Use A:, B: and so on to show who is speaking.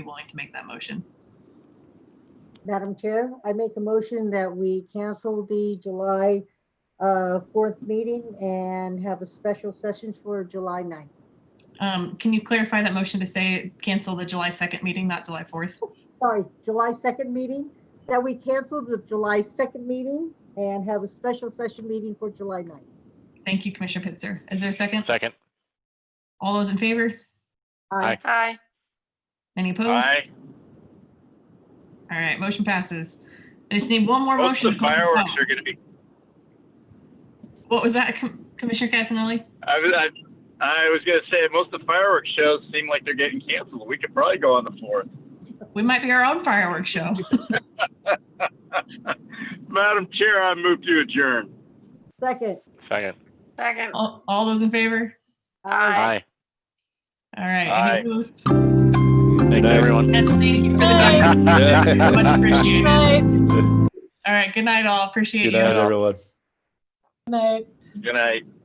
A: be willing to make that motion.
B: Madam Chair, I make a motion that we cancel the July uh, 4th meeting and have a special session for July 9th.
A: Um, Can you clarify that motion to say cancel the July 2nd meeting, not July 4th?
B: Sorry, July 2nd meeting, that we cancel the July 2nd meeting and have a special session meeting for July 9th.
A: Thank you, Commissioner Pitzer. Is there a second?
C: Second.
A: All those in favor?
B: Aye.
D: Aye.
A: Any opposed?
C: Aye.
A: All right, motion passes. I just need one more
C: Most
A: motion
C: of
A: to
C: the
A: close this
C: fireworks
A: out.
C: are gonna be,
A: What was that, Com- Commissioner Casanelli?
C: I, was- I, I was gonna say, most of the fireworks shows seem like they're getting canceled. We could probably go on the fourth.
A: We might be our own fireworks show.
C: Madam Chair, I move to adjourn.
B: Second.
C: Second.
D: Second.
A: All, all those in favor?
D: Aye.
A: All right.
C: Aye.
A: Any opposed?
C: Thank you, everyone.
A: And thank you for the night. Much appreciated. All right, good night all. Appreciate
E: Good
A: you.
E: night, everyone.
C: Good night.